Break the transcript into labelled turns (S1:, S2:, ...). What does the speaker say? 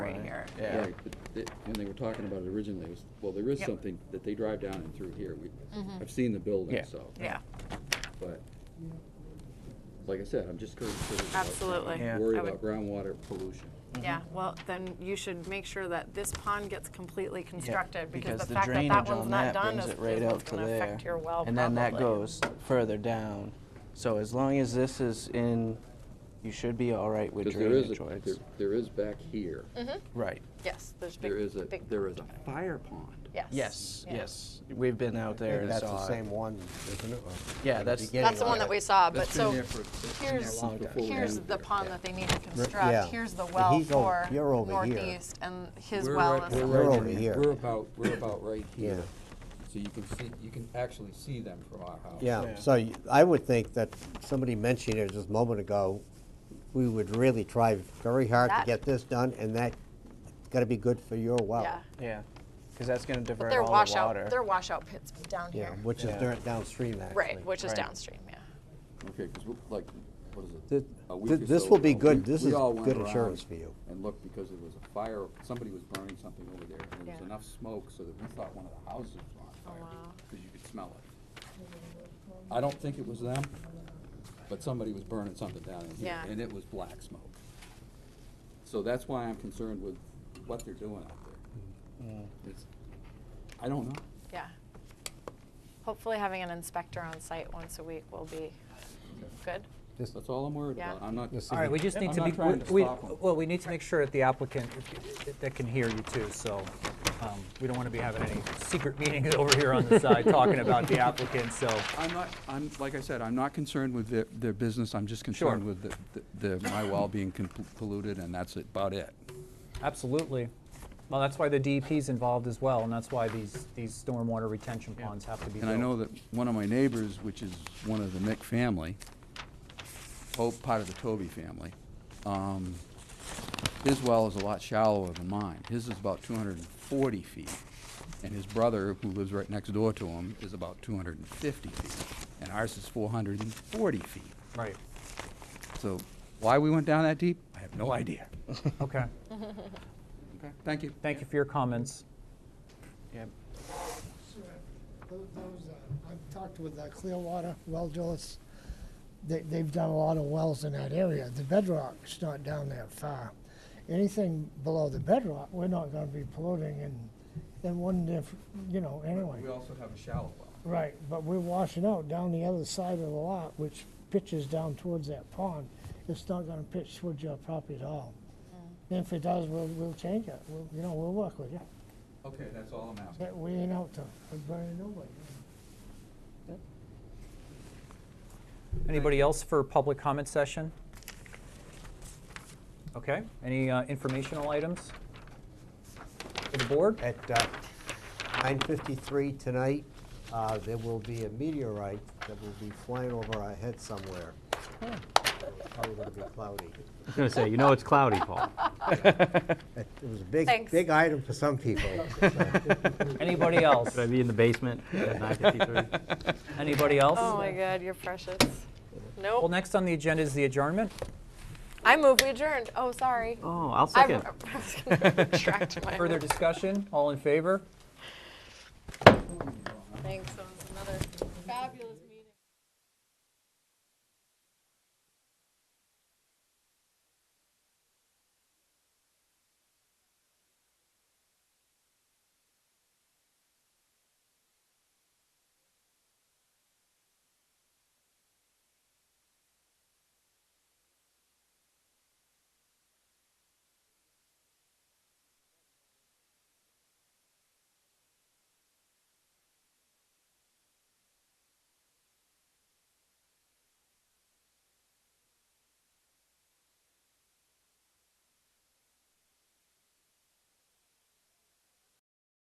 S1: Yeah.
S2: Right, but they- when they were talking about it originally, it was, well, there is
S3: Yep. Mm-hmm.
S2: something that they drive down and through here. We, I've seen the building,
S1: Yeah.
S2: so.
S3: Yeah,
S2: But, like I said, I'm just concerned about.
S3: Absolutely.
S1: Yeah.
S2: Worried
S3: I would-
S2: about groundwater pollution.
S3: yeah, well, then you should make sure that this pond gets completely constructed, because
S1: because
S3: the
S1: the
S3: fact that that
S1: drainage
S3: one's
S1: on
S3: not
S1: that
S3: done
S1: brings
S3: is,
S1: it right
S3: is
S1: out to
S3: gonna
S1: there.
S3: affect your well
S1: And then that
S3: probably.
S1: goes further down. So as long as this is in, you should be all right with
S2: Because there is,
S1: drainage
S2: a-
S1: choice.
S2: there- there is back here,
S1: Right.
S3: Yes, there's big,
S2: there is a,
S3: Mm-hmm. big-
S2: there is a fire pond.
S3: yes.
S1: Yes,
S3: yeah.
S1: yes. We've been out there
S4: Maybe
S1: and
S4: That's
S1: saw
S4: the
S1: it.
S4: same one, isn't it? Or
S1: Yeah,
S4: the
S1: that's-
S4: beginning
S3: That's the
S4: of
S3: one
S4: it.
S3: that we saw, but
S2: That's been
S3: so
S2: there for- that's been there
S3: here's,
S2: long before we
S3: here's
S2: moved
S3: the
S2: it.
S3: pond that they need to
S4: yeah.
S3: construct, here's the
S4: And
S3: well
S4: he's over-
S3: for
S4: you're over here.
S3: northeast, and his
S2: We're
S3: well
S2: right-
S3: is.
S2: we're
S4: We're
S2: right
S4: over
S2: in-
S4: here.
S2: We're about, we're about right
S4: Yeah.
S2: here. So you can see, you can actually see them from our house.
S4: Yeah,
S1: Yeah.
S4: so y- I would think that somebody mentioned it just a moment ago, we would really try very hard to
S3: That-
S4: get this done, and that gotta be good for your well.
S3: Yeah,
S1: Yeah, because that's going to
S3: but
S1: divert
S3: their
S1: all the water.
S3: washout, their washout pits down
S4: Yeah,
S3: here,
S4: which is
S1: Yeah.
S4: dirt downstream, actually.
S3: right, which is
S1: Right.
S3: downstream, yeah.
S2: Okay, because like, what is it?
S4: Th-
S2: a week
S4: th-
S2: or
S4: this
S2: so
S4: will be
S2: ago,
S4: good.
S2: we-
S4: This
S2: we
S4: is
S2: all went
S4: good
S2: around
S4: insurance for you.
S2: And looked, because there was a fire, somebody was burning something over there, and there was
S3: Yeah. Oh,
S2: enough smoke so that we thought one of the houses was on fire,
S3: wow.
S2: because you could smell it. I don't think it was them, but somebody was burning something down in here,
S3: Yeah.
S2: and it was black smoke. So that's why I'm concerned with what they're doing out there. It's, I don't know.
S3: Yeah. Hopefully having an inspector on site once a week will be good.
S4: Just-
S2: That's all I'm worried
S3: Yeah.
S2: about. I'm not.
S4: This
S5: All right, we just
S2: I'm
S5: need to
S2: not
S5: be,
S2: trying to
S5: we,
S2: stop 'em.
S5: well, we need to make sure that the applicant, that can hear you too, so um, we don't want to be having any secret meetings over here on the side talking about the applicant, so.
S2: I'm not, I'm, like I said, I'm not concerned with their, their business, I'm just concerned with the- the, the, my well being com- polluted, and that's about it.
S5: Absolutely. Well, that's why the DEP's involved as well, and that's why these, these stormwater retention ponds have to be
S2: And
S5: built.
S2: I know that one of my neighbors, which is one of the Mick family, oh, part of the Toby family, um, his well is a lot shallower than mine. His is about two hundred and forty feet, and his brother, who lives right next door to him, is about two hundred and fifty feet, and ours is four hundred and forty feet.
S5: Right,
S2: So why we went down that deep, I have no idea.
S5: okay.
S2: Okay, thank you.
S5: Thank you for your comments.
S1: Yep.
S6: Sure. Tho- Those, uh, I've talked with uh, Clearwater Well Drillers. They, they've done a lot of wells in that area. The bedrock's not down that far. Anything below the bedrock, we're not gonna be polluting and, and wouldn't if, you know, anyway.
S2: We also have a shallow well.
S6: Right, but we're washing out down the other side of the lot, which pitches down towards that pond. It's not gonna pitch towards your property at all. If it does, we'll, we'll change it. We'll, you know, we'll work with you.
S2: Okay, that's all I'm asking.
S6: But we ain't out to burn nobody.
S5: Anybody else for public comment session? Okay, any uh, informational items for the board?
S4: At uh, nine fifty-three tonight, uh, there will be a meteorite that will be flying over our head somewhere.
S3: Hmm.
S4: Probably gonna be cloudy.
S7: I was gonna say, you know it's cloudy, Paul.
S4: It it was a big,
S3: Thanks.
S4: big item for some people.
S5: Anybody else?
S7: Should I be in the basement at 9:53?
S5: Anybody else?
S3: Oh my God, you're precious.
S5: Well,
S3: Nope.
S5: next on the agenda is the adjournment.
S3: I move we adjourned. Oh, sorry.
S7: Oh, I'll
S3: I
S7: second.
S3: I was gonna retract my
S5: Further discussion, all in favor?
S3: Thanks so much.